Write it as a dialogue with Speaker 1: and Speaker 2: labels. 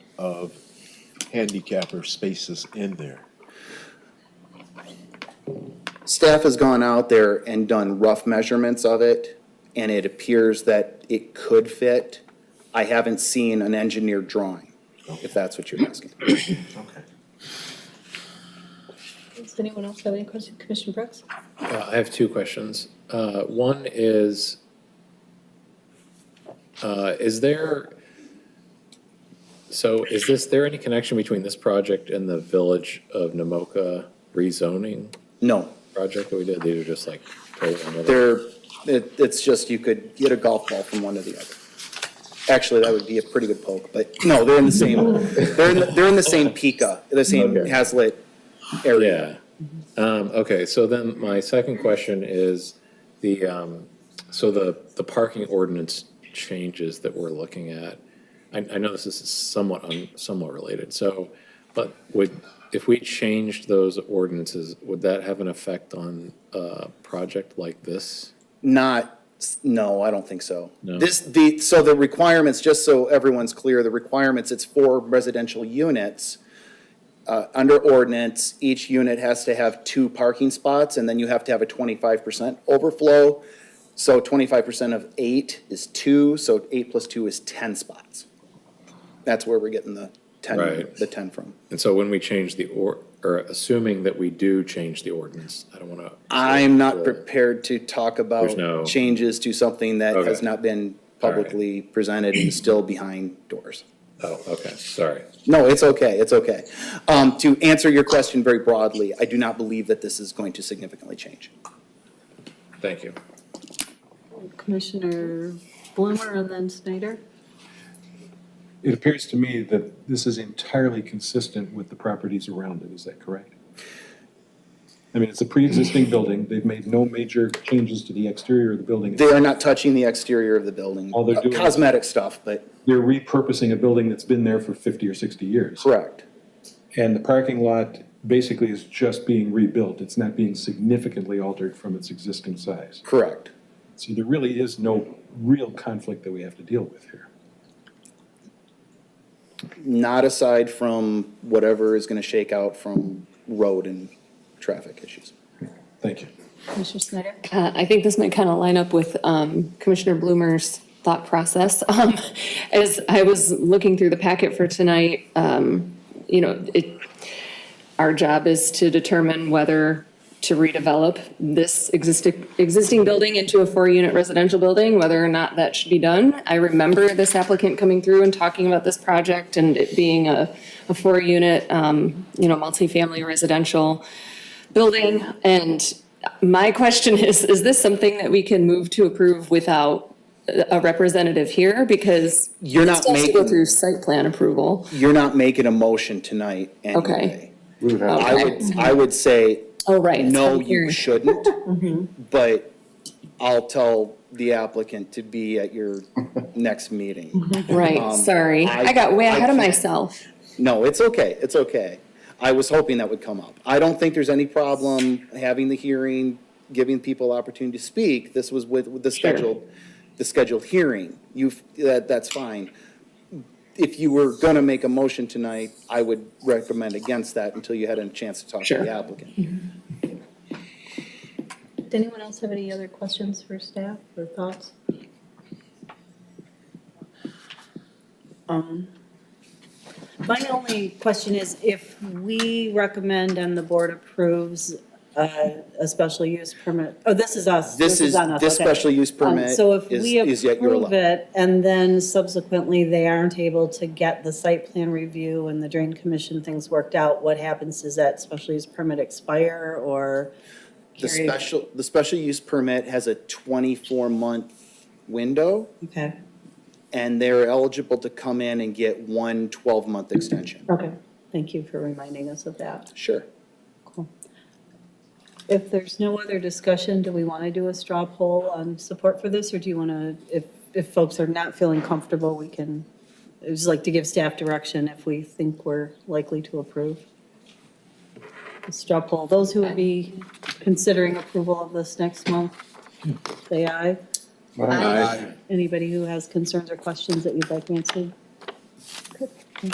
Speaker 1: of handicapper spaces in there.
Speaker 2: Staff has gone out there and done rough measurements of it, and it appears that it could fit. I haven't seen an engineered drawing, if that's what you're asking.
Speaker 1: Okay.
Speaker 3: Does anyone else have any questions? Commissioner Brooks?
Speaker 4: Uh, I have two questions. Uh, One is, uh, is there, so is this, there any connection between this project and the Village of Namoka rezoning
Speaker 2: No,
Speaker 4: project that we did? These are just like totally another.
Speaker 2: they're, it, it's just you could get a golf ball from one to the other. Actually, that would be a pretty good poke, but no, they're in the same, they're in, the- they're in the same Pika, the same
Speaker 4: Okay.
Speaker 2: Hazlet area.
Speaker 4: Yeah. Um, Okay, so then my second question is the, um, so the, the parking ordinance changes that we're looking at. I, I know this is somewhat, un- somewhat related, so, but would, if we changed those ordinances, would that have an effect on a project like this?
Speaker 2: Not, no, I don't think so.
Speaker 4: No.
Speaker 2: This, the, so the requirements, just so everyone's clear, the requirements, it's four residential units. Uh, under ordinance, each unit has to have two parking spots, and then you have to have a twenty-five percent overflow. So twenty-five percent of eight is two, so eight plus two is ten spots. That's where we're getting the ten,
Speaker 4: Right.
Speaker 2: the ten from.
Speaker 4: And so when we change the, or, or assuming that we do change the ordinance, I don't want to.
Speaker 2: I'm not prepared to talk
Speaker 4: There's no-
Speaker 2: about changes to something that has
Speaker 4: Okay.
Speaker 2: not been
Speaker 4: All right.
Speaker 2: publicly presented and still behind doors.
Speaker 4: Oh, okay, sorry.
Speaker 2: No, it's okay, it's okay. Um, to answer your question very broadly, I do not believe that this is going to significantly change.
Speaker 4: Thank you.
Speaker 3: Commissioner Blumer and then Snyder?
Speaker 5: It appears to me that this is entirely consistent with the properties around it, is that correct? I mean, it's a pre-existing building, they've made no major changes to the exterior of the building.
Speaker 2: They are not touching the exterior of the building, Uh,
Speaker 5: All they're doing-
Speaker 2: cosmetic stuff, but
Speaker 5: They're repurposing a building that's been there for 50 or 60 years.
Speaker 2: correct.
Speaker 5: And the parking lot basically is just being rebuilt, it's not being significantly altered from its existing size.
Speaker 2: Correct.
Speaker 5: So there really is no real conflict that we have to deal with here.
Speaker 2: Not aside from whatever is gonna shake out from road and traffic issues.
Speaker 5: Thank you.
Speaker 3: Commissioner Snyder?
Speaker 6: Uh, I think this might kind of line up with um, Commissioner Bloomer's thought process. Um, As I was looking through the packet for tonight, um, you know, it, our job is to determine whether to redevelop this existing, existing building into a four-unit residential building, whether or not that should be done. I remember this applicant coming through and talking about this project and it being a, a four-unit, um, you know, multifamily residential building. And my question is, is this something that we can move to approve without a representative here? Because
Speaker 2: You're not
Speaker 6: it still has to go
Speaker 2: making-
Speaker 6: Through site plan approval.
Speaker 2: You're not making a motion tonight
Speaker 6: Okay.
Speaker 2: anyway. I
Speaker 6: Okay.
Speaker 2: would, I would say,
Speaker 6: Oh, right. it's
Speaker 2: no,
Speaker 6: public
Speaker 2: you
Speaker 6: hearing.
Speaker 2: shouldn't, but I'll tell the applicant to be at your next meeting.
Speaker 6: Mm-hmm. Right, sorry.
Speaker 2: um, I-
Speaker 6: I got way
Speaker 2: I
Speaker 6: ahead of
Speaker 2: can't-
Speaker 6: myself.
Speaker 2: No, it's okay, it's okay. I was hoping that would come up. I don't think there's any problem having the hearing, giving people opportunity to speak. This was with, with the
Speaker 6: Sure.
Speaker 2: scheduled, the scheduled hearing. You've, that, that's fine. If you were gonna make a motion tonight, I would recommend against that until you had a chance to talk to
Speaker 6: Sure.
Speaker 2: the applicant.
Speaker 3: Did anyone else have any other questions for staff or thoughts?
Speaker 7: Um, My only question is if we recommend and the board approves uh, a special use permit, oh, this is us.
Speaker 2: This is,
Speaker 7: on us,
Speaker 2: this
Speaker 7: okay.
Speaker 2: special use
Speaker 7: Um,
Speaker 2: permit
Speaker 7: So if
Speaker 2: is,
Speaker 7: we
Speaker 2: is yet your
Speaker 7: approve
Speaker 2: level.
Speaker 7: it and then subsequently they aren't able to get the site plan review and the drain commission things worked out, what happens? Does that special use permit expire or?
Speaker 2: The special, the special use permit has a twenty-four month window,
Speaker 7: Okay,
Speaker 2: and they're eligible to come in and get one 12 twelve-month extension.
Speaker 7: okay. Thank you for reminding us of that.
Speaker 2: Sure.
Speaker 7: Cool. If there's no other discussion, do we want to do a straw poll on support for this, or do you want to, if, if folks are not feeling comfortable, we can, I'd just like to give staff direction if we think we're likely to approve. A Straw poll, those who would be considering approval of this next month, say aye. Anybody who has concerns or questions that you'd like answered?